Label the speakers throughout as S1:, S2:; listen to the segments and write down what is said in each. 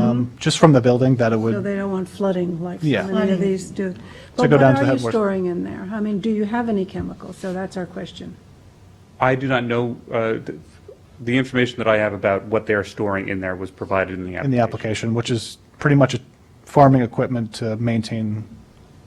S1: um, just from the building that it
S2: So
S1: would,
S2: they don't want flooding like
S1: Yeah.
S2: so many of these do.
S1: go down to
S2: But what are you
S1: headwater.
S2: storing in there? I mean, do you have any chemicals? So that's our question.
S3: I do not know, uh, th- the information that I have about what they're storing in there was provided in the
S1: in the
S3: application.
S1: application, which is pretty much farming equipment to maintain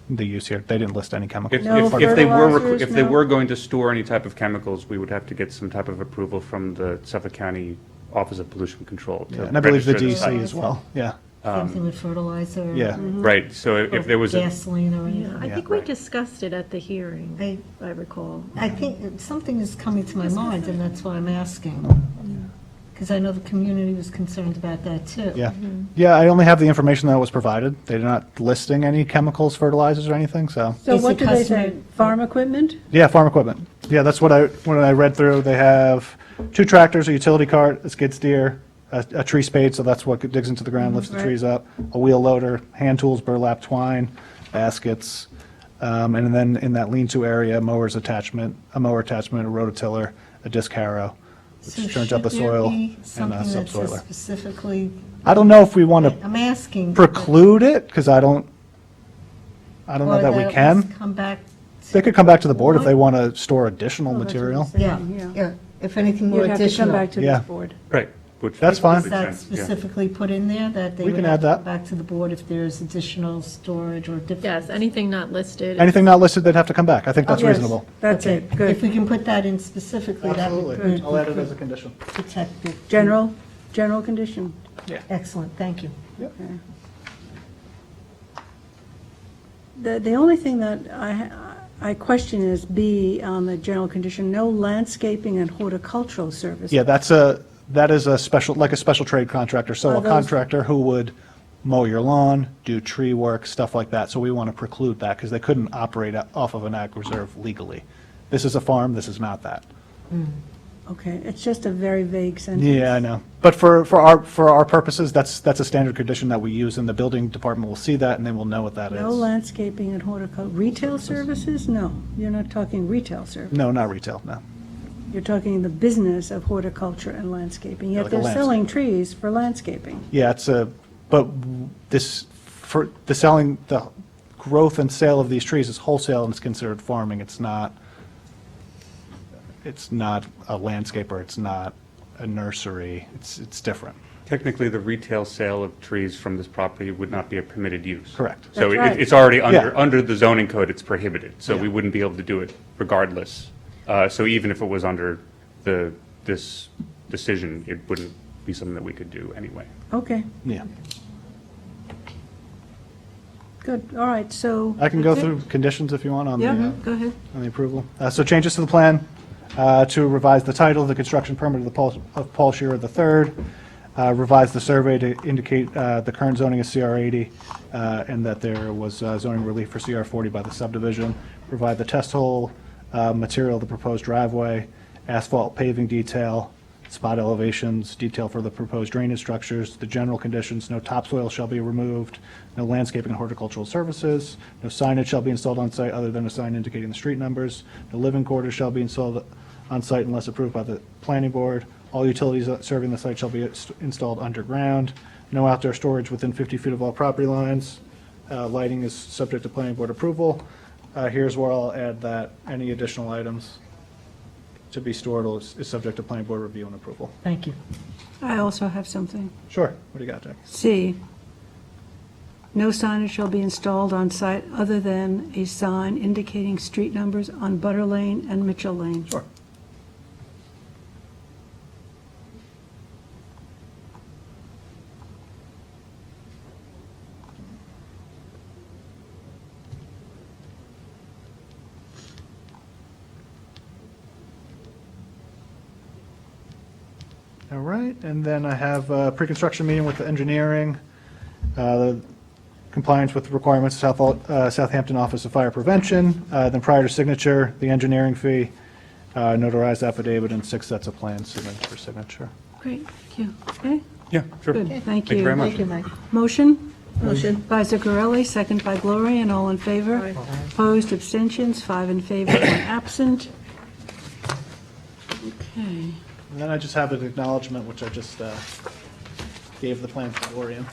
S1: the use here. They didn't list any
S3: If,
S1: chemicals.
S2: No
S3: if, if they were, requ-
S2: fertilizers,
S3: if they
S2: no-
S3: were going to store any type of chemicals, we would have to get some type of approval from the Suffolk County Office of Pollution Control. to
S1: Yeah, And I believe the
S3: register
S1: DEC
S3: the site.
S1: as well, yeah.
S4: Same thing with fertilizer.
S1: Um, Yeah.
S3: Right, so if if there was, a-
S4: Gasoline or
S5: Yeah,
S4: anything.
S5: I think we discussed it at the hearing,
S4: I-
S5: I recall.
S4: I think that something is coming to my mind, and that's why I'm asking. Because I know the community was concerned about that, too.
S1: Yeah, yeah, I only have the information that was provided. They're not listing any chemicals, fertilizers, or anything, so,
S2: So
S4: Is
S2: what
S4: it
S2: do they say?
S4: customary-
S2: Farm equipment?
S1: yeah, farm equipment. Yeah, that's what I, when I read through, they have two tractors, a utility cart, a skid steer, a, a tree spade, so that's what digs into the ground, lifts the
S2: right.
S1: trees up, a wheel loader, hand tools, burlap twine, baskets, um, and then in that lean-to area, mowers attachment, a mower attachment, a rototiller, a disc harrow,
S4: So
S1: which turns up the
S4: should there
S1: soil
S4: be
S1: and a
S4: Something that says
S1: subsoiler.
S4: specifically,
S1: I don't know if we want to
S4: I'm asking. but-
S1: preclude it, because I don't, I don't know
S4: or
S1: that we
S4: at
S1: can.
S4: least Come back.
S1: They could come back to the board if they
S4: Well,
S1: want to store additional
S2: Oh, that's what
S1: material.
S2: it said.
S4: Yeah,
S2: Yeah.
S4: yeah, if anything more
S2: You'd have to come
S4: additional.
S2: back to this
S1: Yeah.
S2: board.
S3: right. which
S1: That's
S3: would
S1: fine.
S4: Is
S3: make
S4: that
S3: sense, yeah.
S4: specifically put in there, that they
S1: We
S4: would
S1: can
S4: have
S1: add
S4: to
S1: that.
S4: come back to the board if there's additional storage or different?
S5: Yes, anything not listed.
S1: Anything not listed, they'd have to come back. I think that's
S2: Oh, Yes,
S1: reasonable.
S2: That's it,
S4: If
S2: good.
S4: we can put that in specifically, that would be
S1: I'll add it as a condition.
S4: protected.
S2: General, general condition.
S4: Excellent, thank you.
S2: The, the only thing that I, I question is B on the general condition, no landscaping and horticultural service.
S1: Yeah, that's a, that is a special, like a special trade contractor, so
S2: Are
S1: a
S2: those-
S1: contractor who would mow your lawn, do tree work, stuff like that. So we want to preclude that because they couldn't operate o- off of an ag reserve legally. This is a farm, this is not that.
S2: Okay, it's just a very vague sentence.
S1: Yeah, I know. But for, for our, for our purposes, that's, that's a standard condition that we use, and the building department will see that, and they will know what that is.
S2: No landscaping and horticultural, retail services? No, you're not talking retail service.
S1: No, not retail, no.
S2: You're talking the business of horticulture and landscaping, yet
S1: Like a
S2: they're
S1: landscape.
S2: selling trees for landscaping.
S1: Yeah, it's a, but this, for, the selling, the growth and sale of these trees is wholesale and it's considered farming. It's not, it's not a landscaper, it's not a nursery, it's, it's different.
S3: Technically, the retail sale of trees from this property would not be a permitted use.
S1: Correct.
S3: So
S2: That's
S3: it-
S2: right.
S3: it's already under,
S1: Yeah.
S3: under the zoning code, it's prohibited, so we
S1: Yeah.
S3: wouldn't be able to do it regardless. Uh, So even if it was under the, this decision, it wouldn't be something that we could do anyway.
S2: Okay,
S1: Yeah.
S2: good, all right, so.
S1: I can go
S2: That's it?
S1: through conditions if you want on the, uh,
S5: Go ahead.
S1: on the approval. Uh, So changes to the plan, uh, to revise the title, the construction permit of the Paul, of Paul Shearer III, uh, revise the survey to indicate uh, the current zoning is CR 80, uh, and that there was uh, zoning relief for CR 40 by the subdivision, provide the test hole, uh, material of the proposed driveway, asphalt paving detail, spot elevations, detail for the proposed drainage structures, the general conditions, no topsoil shall be removed, no landscaping and horticultural services, no signage shall be installed on site other than a sign indicating the street numbers, no living quarters shall be installed on site unless approved by the planning board, all utilities serving the site shall be ins- installed underground, no outdoor storage within 50 feet of all property lines, Uh, lighting is subject to planning board approval. Uh, Here's where I'll add that, any additional items to be stored is, is subject to planning board review and approval.
S4: Thank you.
S2: I also have something.
S1: Sure. What do you got, Jack?
S2: C, no signage shall be installed on site other than a sign indicating street numbers on Butter Lane and Mitchell Lane.
S1: Sure. All right, and then I have a pre-construction meeting with the engineering, uh, compliance with requirements of South- uh, Southampton Office of Fire Prevention, uh, then prior to signature, the engineering fee, uh, notarized affidavit, and six sets of plans submitted for signature.
S2: Great, thank you. Okay,
S3: Yeah, sure.
S2: good, thank you.
S3: you very much.
S4: Thank you, Mike.
S2: Motion?
S5: Motion.
S2: By Zuccarelli, second by Gloria, and all in favor? Opposed, abstentions, five in favor, one absent. Okay.
S1: And then I just have an acknowledgement, which I just uh, gave the plan to Gloria.